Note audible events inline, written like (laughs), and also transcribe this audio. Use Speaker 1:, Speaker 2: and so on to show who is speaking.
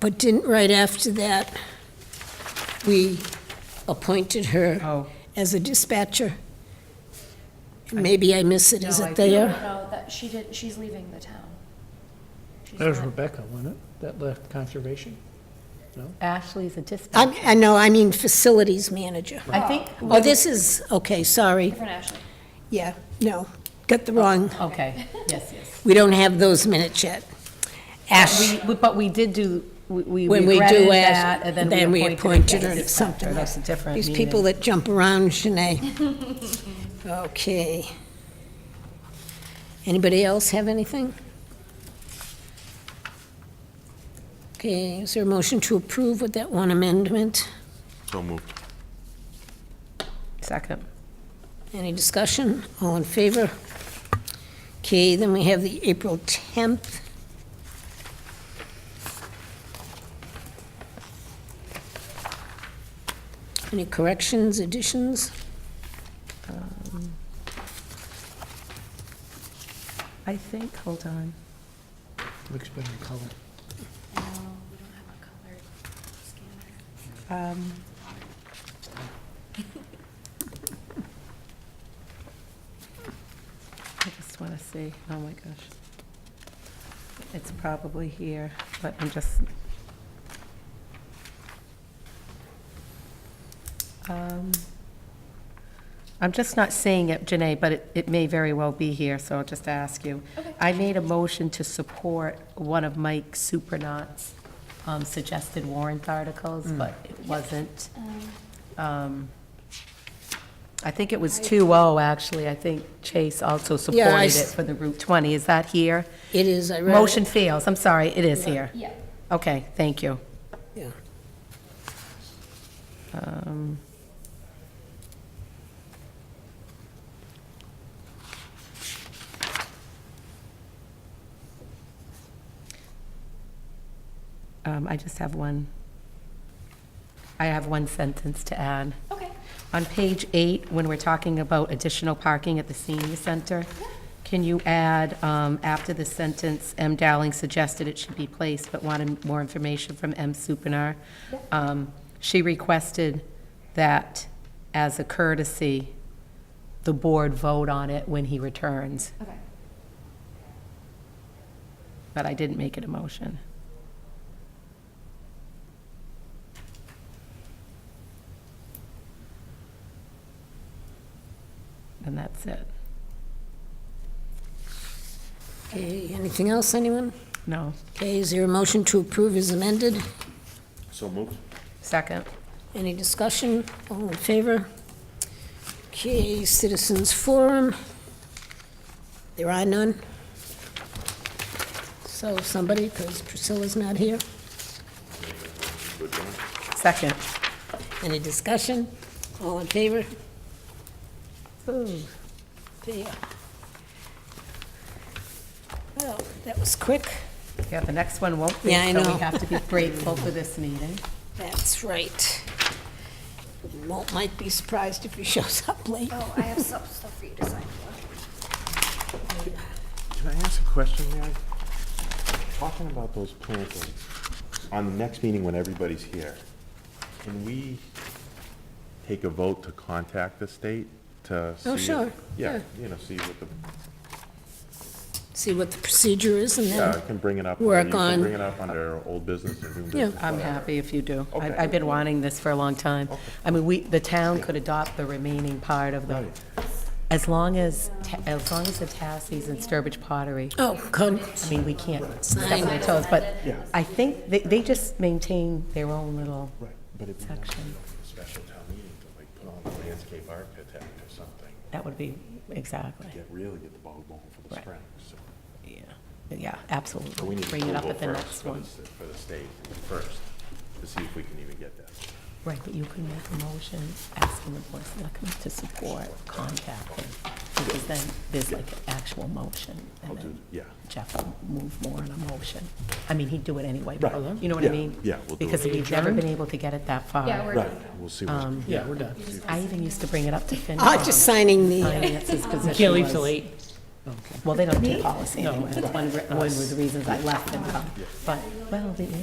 Speaker 1: But didn't, right after that, we appointed her
Speaker 2: Oh,
Speaker 1: as a dispatcher? Maybe I miss it, is
Speaker 2: No, I
Speaker 1: it
Speaker 2: think-
Speaker 1: there?
Speaker 3: No, that, she did, she's leaving the town. She's
Speaker 4: That was
Speaker 3: not-
Speaker 4: Rebecca, wasn't it, that left conservation?
Speaker 5: Ashley's a dispatcher.
Speaker 1: I, I know, I mean facilities manager.
Speaker 5: I think,
Speaker 1: Oh, this is, okay, sorry,
Speaker 3: Different Ashley.
Speaker 1: yeah, no, got the wrong,
Speaker 2: Oh.
Speaker 5: okay, yes, yes.
Speaker 1: we don't have those minutes yet. Ash,
Speaker 5: We- we- But we did do, we we
Speaker 1: when we
Speaker 5: regretted
Speaker 1: do
Speaker 5: that,
Speaker 1: Ash,
Speaker 5: and
Speaker 1: then we appointed her to
Speaker 5: Yes.
Speaker 1: something.
Speaker 2: that's a different
Speaker 1: These
Speaker 2: meeting.
Speaker 1: people that jump around, Shanae. (laughs) Okay. Anybody else have anything? Okay, is there a motion to approve with that one amendment?
Speaker 6: So moved.
Speaker 2: Second.
Speaker 1: Any discussion? All in favor? Okay, then we have the April 10th. Any corrections, additions?
Speaker 2: I think, hold on.
Speaker 4: Looks better in color.
Speaker 3: No, we don't have a colored scanner.
Speaker 2: Um, I just want to see, oh my gosh. It's probably here, but I'm just. Um, I'm just not seeing it, Janae, but it, it may very well be here, so I'll just ask you.
Speaker 3: Okay.
Speaker 5: I made a motion to support one of Mike Supernaut's um, suggested warrant articles,
Speaker 1: Mm.
Speaker 5: but it wasn't.
Speaker 3: Um,
Speaker 5: um, I think it was 2-0, actually. I think Chase also
Speaker 1: Yeah, I
Speaker 5: supported it
Speaker 1: s-
Speaker 5: for the Route 20. Is that here?
Speaker 1: It is, I read. it.
Speaker 5: Motion fails. I'm sorry, it is here.
Speaker 3: Yeah,
Speaker 5: Okay, thank you.
Speaker 1: Yeah.
Speaker 5: Um, um, I just have one, I have one sentence to add.
Speaker 3: okay.
Speaker 5: On page eight, when we're talking about additional parking at the senior center, can you add, um, after the sentence, M. Dowling suggested it should be placed, but wanted more information from M. Supinar? Um, She requested that, as a courtesy, the board vote on it when he returns,
Speaker 3: Okay.
Speaker 5: but I didn't make it a motion. And that's it.
Speaker 1: Okay, anything else, anyone?
Speaker 5: No.
Speaker 1: Okay, is there a motion to approve as amended?
Speaker 6: So moved.
Speaker 5: Second.
Speaker 1: Any discussion? All in favor? Okay, citizens forum. There are none. So somebody, because Priscilla's not here.
Speaker 5: Second.
Speaker 1: Any discussion? All in favor? Oh,
Speaker 5: Ooh.
Speaker 1: There. Well, that was quick.
Speaker 5: Yeah, the next one won't be,
Speaker 1: Yeah, I
Speaker 5: so
Speaker 1: know.
Speaker 5: we have to be grateful for this meeting.
Speaker 1: That's right. Won't, might be surprised if he shows up late.
Speaker 3: Oh, I have some stuff for you to sign for.
Speaker 6: Can I ask a question, Mary? Talking about those plantings, on the next meeting when everybody's here, can we take a vote to contact the state to see?
Speaker 1: Oh,
Speaker 6: if-
Speaker 1: sure,
Speaker 6: Yeah, you know, see what the,
Speaker 1: See what the procedure is and
Speaker 6: yeah, I
Speaker 1: then,
Speaker 6: can bring it up.
Speaker 1: Work
Speaker 6: under- you can
Speaker 1: on-
Speaker 6: Bring it up under old business or new business.
Speaker 5: I'm
Speaker 6: whatever.
Speaker 5: happy if you do. I-
Speaker 6: Okay.
Speaker 5: I've been wanting this for a long time. I mean, we, the town could adopt the remaining part of the, as long as, Ta- as long as the Tassies and Sturbridge Pottery,
Speaker 1: oh, good.
Speaker 5: I mean, we can't step
Speaker 1: Sign.
Speaker 5: on their toes, but I think they, they just maintain their own little
Speaker 6: Right, but it'd be nice to
Speaker 5: section.
Speaker 6: know for a special town meeting to like put on a landscape architect or something,
Speaker 5: That would be, exactly,
Speaker 6: get, really get the ball going for the
Speaker 5: Right.
Speaker 6: spring, so.
Speaker 5: yeah, yeah,
Speaker 6: But we
Speaker 5: absolutely.
Speaker 6: need
Speaker 5: Bring it up
Speaker 6: approval
Speaker 5: at the
Speaker 6: first
Speaker 5: next
Speaker 6: for
Speaker 5: one.
Speaker 6: the s- For the state first, to see if we can even get that.
Speaker 5: Right, but you can make a motion asking the board of selectmen to support contacting, because then there's like an actual motion, and
Speaker 6: do-
Speaker 5: then
Speaker 6: yeah.
Speaker 5: Jeff will move more on a motion. I mean, he'd do it anyway, but,
Speaker 6: Right,
Speaker 5: you know what I
Speaker 6: yeah,
Speaker 5: mean?
Speaker 6: yeah, we'll do it.
Speaker 5: Because we've never been able to get it that far.
Speaker 3: Yeah, we're done.
Speaker 6: we'll see what.
Speaker 4: Yeah, we're done.
Speaker 5: I even used to bring it up to FinCom.
Speaker 1: Oh, just signing the. uh,
Speaker 5: Finance's
Speaker 3: (laughs)
Speaker 5: position
Speaker 4: Can't leave till
Speaker 5: was-
Speaker 4: eight.
Speaker 5: Well, they don't do policy anyway, that's one, re- one of the reasons I left FinCom, but, well, they- yeah,